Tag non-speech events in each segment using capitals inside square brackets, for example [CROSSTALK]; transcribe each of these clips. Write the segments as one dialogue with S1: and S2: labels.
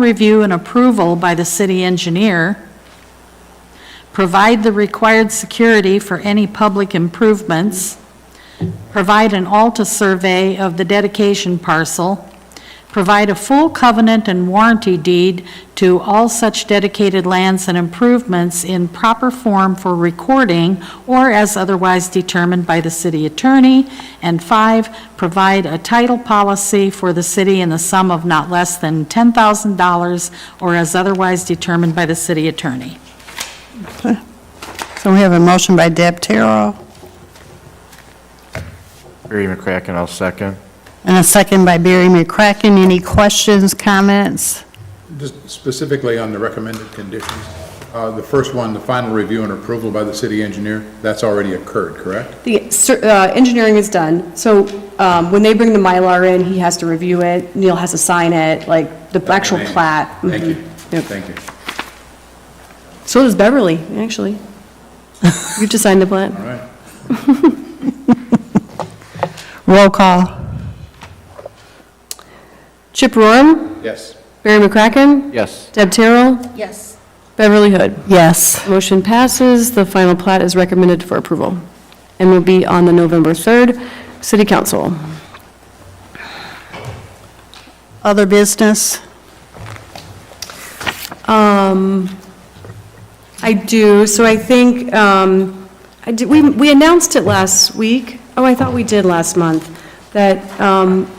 S1: review and approval by the city engineer, provide the required security for any public improvements, provide an ALTA survey of the dedication parcel, provide a full covenant and warranty deed to all such dedicated lands and improvements in proper form for recording or as otherwise determined by the city attorney, and five, provide a title policy for the city in the sum of not less than $10,000 or as otherwise determined by the city attorney.
S2: So we have a motion by Deb Terrell
S3: Barry McCracken, I'll second.
S2: and a second by Barry McCracken. Any questions, comments?
S4: Just specifically on the recommended conditions, uh, the first one, the final review and approval by the city engineer, that's already occurred, correct?
S5: The cer- uh, engineering is done, so um, when they bring the Mylar in, he has to review it, Neil has to sign it, like the actual
S4: Thank you.
S5: plat.
S4: Thank you,
S5: Mhm. Yep.
S4: thank you.
S5: So does Beverly, actually. You just signed the plat.
S4: All right,
S2: Roll call.
S5: Chip Roram,
S4: yes.
S5: Barry McCracken,
S3: Yes.
S5: Deb Terrell,
S1: Yes.
S5: Beverly Hood.
S2: Yes.
S5: Motion passes, the final plat is recommended for approval and will be on the November 3rd City Council.
S2: Other business?
S5: Um, I do, so I think, um, I did, we, we announced it last week, oh, I thought we did last month, that, um,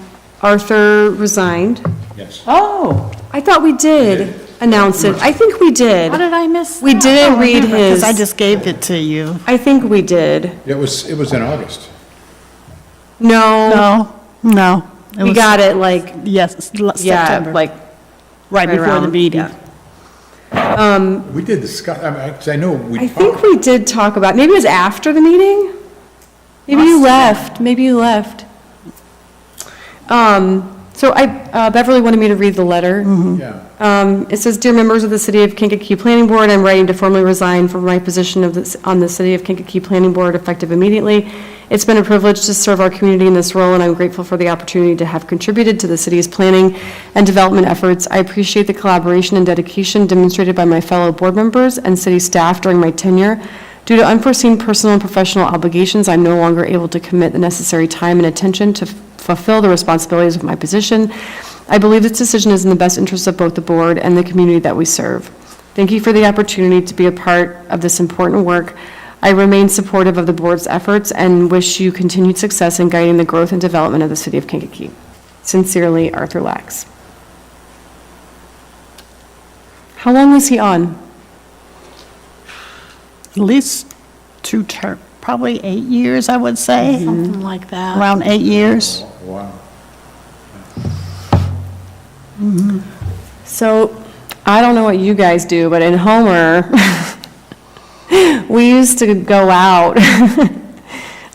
S5: Arthur resigned.
S4: Yes.
S1: Oh,
S5: I thought we did announce it, I think we did.
S1: how did I miss
S5: We
S1: that?
S5: didn't read
S2: Because
S5: his,
S2: I just gave it to you.
S5: I think we did.
S4: It was, it was in August.
S5: No,
S2: No, no. It
S5: we
S2: was-
S5: got it like,
S2: Yes, l-
S5: yeah,
S2: September,
S5: like.
S2: right before the
S5: around,
S2: meeting.
S5: yeah.
S4: We did discuss, I mean, I 'cause I know we
S5: I
S4: talked.
S5: think we did talk about, maybe it was after the meeting? Maybe you left, maybe you left. Um, so I, uh, Beverly wanted me to read the letter.
S2: Mm-hmm.
S4: Yeah.
S5: Um, It says, "Dear members of the City of Kankakee Planning Board, I'm writing to formally resign from my position of this- on the City of Kankakee Planning Board effective immediately. It's been a privilege to serve our community in this role, and I'm grateful for the opportunity to have contributed to the city's planning and development efforts. I appreciate the collaboration and dedication demonstrated by my fellow board members and city staff during my tenure. Due to unforeseen personal and professional obligations, I'm no longer able to commit the necessary time and attention to f- fulfill the responsibilities of my position. I believe this decision is in the best interest of both the board and the community that we serve. Thank you for the opportunity to be a part of this important work. I remain supportive of the board's efforts and wish you continued success in guiding the growth and development of the city of Kankakee. Sincerely, Arthur Lax. How long was he on?
S2: At least two term, probably eight years, I would say,
S1: Something like that.
S2: Mm-hmm. around eight years.
S4: Wow.
S5: So, I don't know what you guys do, but in Homer, [LAUGHS] we used to go out. [LAUGHS]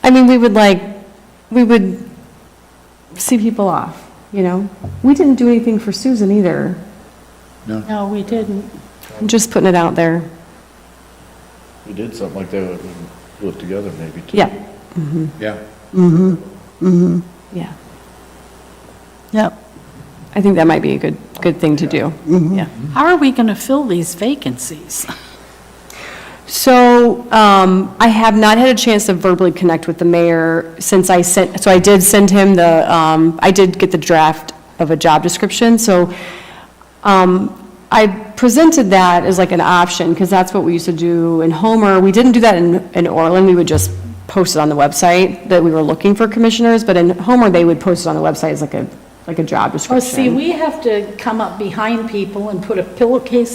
S5: I mean, we would like, we would see people off, you know? We didn't do anything for Susan either.
S1: No, we didn't.
S5: I'm just putting it out there.
S3: We did something like that, we do it together maybe too.
S5: Yeah,
S4: Yeah,
S5: yeah.
S2: Yep.
S5: I think that might be a good, good thing to do. Yeah.
S1: How are we going to fill these vacancies?
S5: So um, I have not had a chance to verbally connect with the mayor since I sent, so I did send him the, um, I did get the draft of a job description, so um, I presented that as like an option, because that's what we used to do in Homer. We didn't do that in in Orland, we would just post it on the website that we were looking for commissioners, but in Homer, they would post it on the website as like a, like a job
S1: Oh,
S5: description.
S1: see, we have to come up behind people and put a pillowcase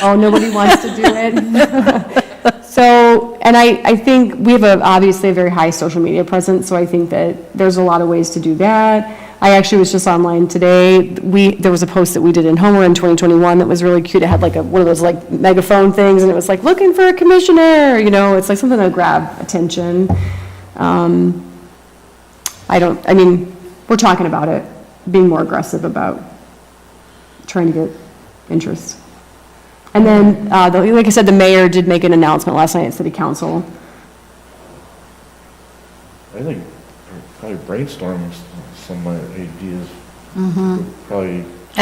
S5: oh, nobody wants to do it. [LAUGHS] So, and I, I think we have a, obviously a very high social media presence, so I think that there's a lot of ways to do that. I actually was just online today, we, there was a post that we did in Homer in 2021 that was really cute, it had like a, one of those like megaphone things, and it was like, looking for a commissioner, you know, it's like something that'll grab attention. Um, I don't, I mean, we're talking about it, being more aggressive about trying to get interest. And then, uh, the- like I said, the mayor did make an announcement last night at city council.
S3: I think probably brainstorm some ideas probably